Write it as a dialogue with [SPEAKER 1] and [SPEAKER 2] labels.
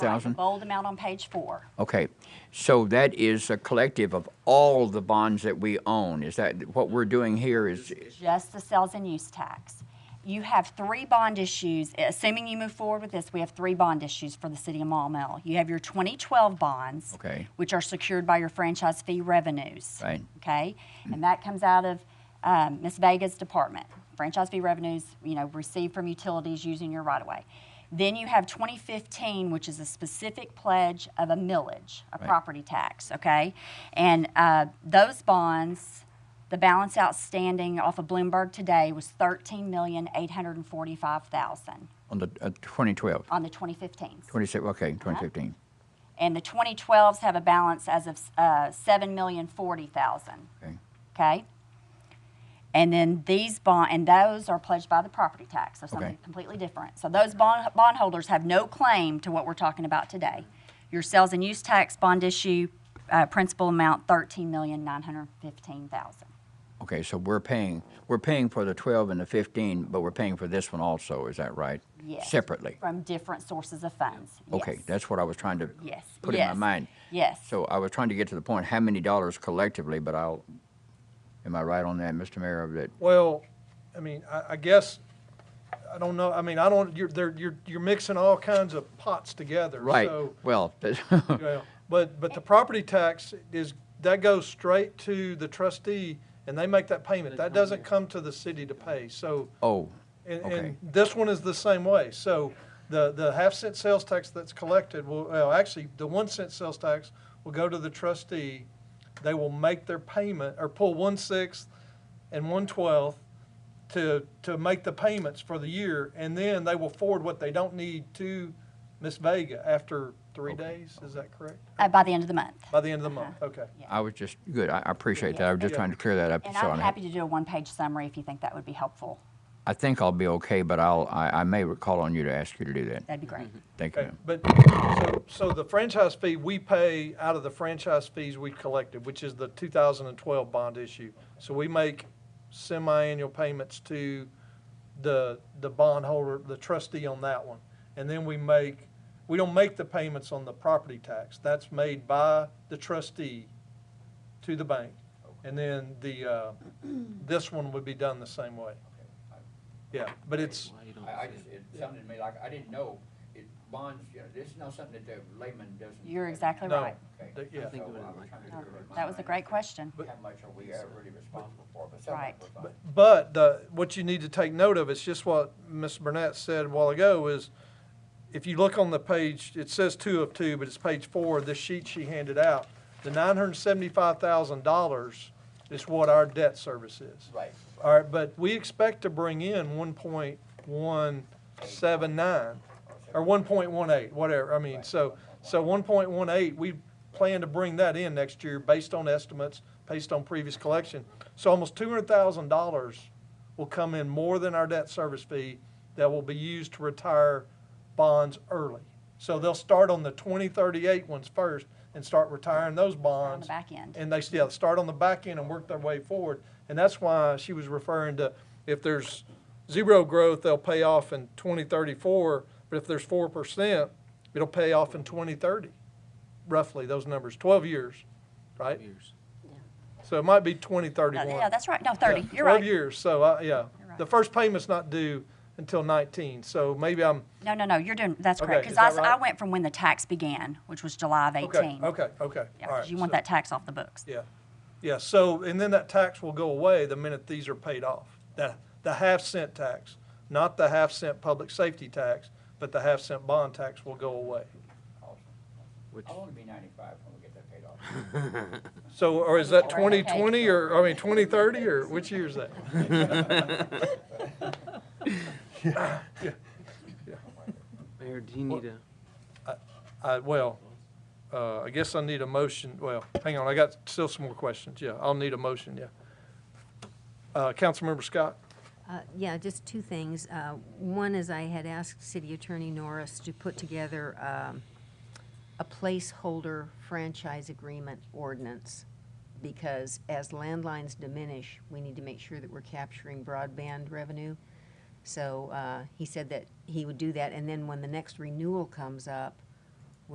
[SPEAKER 1] thousand?
[SPEAKER 2] Bold amount on page four.
[SPEAKER 1] Okay, so that is a collective of all the bonds that we own. Is that, what we're doing here is,
[SPEAKER 2] just the sales and use tax. You have three bond issues, assuming you move forward with this, we have three bond issues for the city of Maumelle. You have your 2012 bonds.
[SPEAKER 1] Okay.
[SPEAKER 2] Which are secured by your franchise fee revenues.
[SPEAKER 1] Right.
[SPEAKER 2] Okay, and that comes out of um, Ms. Vega's department, franchise fee revenues, you know, received from utilities using your right-of-way. Then you have 2015, which is a specific pledge of a millage, a property tax, okay? And uh, those bonds, the balance outstanding off of Bloomberg today was 13845000
[SPEAKER 1] on the, uh, 2012,
[SPEAKER 2] on the 2015s.
[SPEAKER 1] 26,
[SPEAKER 2] Uh-huh.
[SPEAKER 1] okay, 2015.
[SPEAKER 2] And the 2012s have a balance as of uh, 7040000
[SPEAKER 1] Okay,
[SPEAKER 2] Okay? And then these bond, and those are pledged by the property tax, so something
[SPEAKER 1] Okay.
[SPEAKER 2] completely different. So those bond, bondholders have no claim to what we're talking about today. Your sales and use tax bond issue, uh, principal amount thirteen million nine hundred fifteen thousand.
[SPEAKER 1] Okay, so we're paying, we're paying for the 12 and the 15, but we're paying for this one also, is that right?
[SPEAKER 2] Yes.
[SPEAKER 1] Separately?
[SPEAKER 2] From different sources of funds.
[SPEAKER 1] Okay,
[SPEAKER 2] Yes.
[SPEAKER 1] that's what I was trying to
[SPEAKER 2] Yes.
[SPEAKER 1] put in my
[SPEAKER 2] Yes.
[SPEAKER 1] mind.
[SPEAKER 2] Yes.
[SPEAKER 1] So I was trying to get to the point, how many dollars collectively, but I'll, am I right on that, Mr. Mayor, of that?
[SPEAKER 3] Well, I mean, I, I guess, I don't know, I mean, I don't, you're, there, you're, you're mixing all kinds of pots together,
[SPEAKER 1] Right,
[SPEAKER 3] so.
[SPEAKER 1] well, that-
[SPEAKER 3] yeah. But, but the property tax is, that goes straight to the trustee, and they make that payment. That doesn't come to the city to pay, so.
[SPEAKER 1] oh,
[SPEAKER 3] And,
[SPEAKER 1] Okay.
[SPEAKER 3] and this one is the same way. So the, the half cent sales tax that's collected will, well, actually, the one cent sales tax will go to the trustee. They will make their payment or pull one sixth and one twelfth to, to make the payments for the year. And then they will forward what they don't need to Ms. Vega after three days. Is that correct?
[SPEAKER 2] Uh, by the end of the month.
[SPEAKER 3] By the end of the month. Okay.
[SPEAKER 1] I was just, good, I I appreciate that, I was just
[SPEAKER 3] Yeah.
[SPEAKER 1] trying to clear that up.
[SPEAKER 2] And
[SPEAKER 1] so
[SPEAKER 2] I'm
[SPEAKER 1] I-
[SPEAKER 2] happy to do a one-page summary if you think that would be helpful.
[SPEAKER 1] I think I'll be okay, but I'll, I, I may call on you to ask you to do that.
[SPEAKER 2] That'd be great.
[SPEAKER 1] Thank you.
[SPEAKER 3] Okay,
[SPEAKER 1] ma'am.
[SPEAKER 3] but, so, so the franchise fee, we pay out of the franchise fees we collected, which is the two thousand and twelve bond issue. So we make semi-annual payments to the, the bondholder, the trustee on that one. And then we make, we don't make the payments on the property tax. That's made by the trustee to the bank. And then the, uh, this one would be done the same way. Yeah, but it's,
[SPEAKER 1] I, I just, it sounded to me like, I didn't know, it, bonds, you know, this is not something that the layman doesn't.
[SPEAKER 2] You're exactly
[SPEAKER 3] No.
[SPEAKER 2] right.
[SPEAKER 1] Okay.
[SPEAKER 3] yeah.
[SPEAKER 1] So I was trying to do it in my
[SPEAKER 2] That was a
[SPEAKER 1] mind.
[SPEAKER 2] great question.
[SPEAKER 1] How much are we uh, really responsible for, but some of
[SPEAKER 2] Right.
[SPEAKER 1] it we're fine.
[SPEAKER 3] But the, what you need to take note of is just what Ms. Burnett said a while ago is, if you look on the page, it says two of two, but it's page four, of this sheet she handed out. The nine hundred and seventy-five thousand dollars is what our debt service is.
[SPEAKER 1] Right.
[SPEAKER 3] All right, but we expect to bring in one point one seven nine, or one point one eight, whatever, I mean, so, so one point one eight, we plan to bring that in next year based on estimates, based on previous collection. So almost two hundred thousand dollars will come in more than our debt service fee that will be used to retire bonds early. So they'll start on the 2038 ones first and start retiring those bonds.
[SPEAKER 2] back end.
[SPEAKER 3] And they still start on the back end and work their way forward. And that's why she was referring to if there's zero growth, they'll pay off in 2034. But if there's 4%, it'll pay off in 2030, roughly those numbers, 12 years, right?
[SPEAKER 4] years.
[SPEAKER 3] So it might be
[SPEAKER 2] No,
[SPEAKER 3] 2031.
[SPEAKER 2] Yeah, that's right. No, 30.
[SPEAKER 3] Yeah,
[SPEAKER 2] You're right.
[SPEAKER 3] Twelve years, so, I- yeah.
[SPEAKER 2] You're
[SPEAKER 3] The
[SPEAKER 2] right.
[SPEAKER 3] first payment's not due until nineteen, so maybe I'm,
[SPEAKER 2] No, no, no, you're doing, that's correct.
[SPEAKER 3] Okay,
[SPEAKER 2] Because
[SPEAKER 3] is
[SPEAKER 2] I,
[SPEAKER 3] that
[SPEAKER 2] s- I
[SPEAKER 3] right?
[SPEAKER 2] went from when the tax began, which was July of 18.
[SPEAKER 3] okay, okay, okay,
[SPEAKER 2] Yeah,
[SPEAKER 3] all
[SPEAKER 2] 'cause
[SPEAKER 3] right.
[SPEAKER 2] you want
[SPEAKER 3] so-
[SPEAKER 2] that tax off the books.
[SPEAKER 3] Yeah, yeah, so, and then that tax will go away the minute these are paid off. The, the half cent tax, not the half cent public safety tax, but the half cent bond tax will go away.
[SPEAKER 4] Which-
[SPEAKER 1] I'll only be ninety-five when we get that paid off.
[SPEAKER 3] So, or is that twenty twenty, or, I mean, twenty thirty, or which year is that?
[SPEAKER 4] Mayor, do you
[SPEAKER 1] Oh.
[SPEAKER 4] need a,
[SPEAKER 3] I, well, uh, I guess I need a motion, well, hang on, I got still some more questions, yeah, I'll need a motion, yeah. Uh, Councilmember Scott?
[SPEAKER 5] Uh, Yeah, just two things. Uh, One is I had asked City Attorney Norris to put together um, a placeholder franchise agreement ordinance, because as landlines diminish, we need to make sure that we're capturing broadband revenue. So uh, he said that he would do that, and then when the next renewal comes up,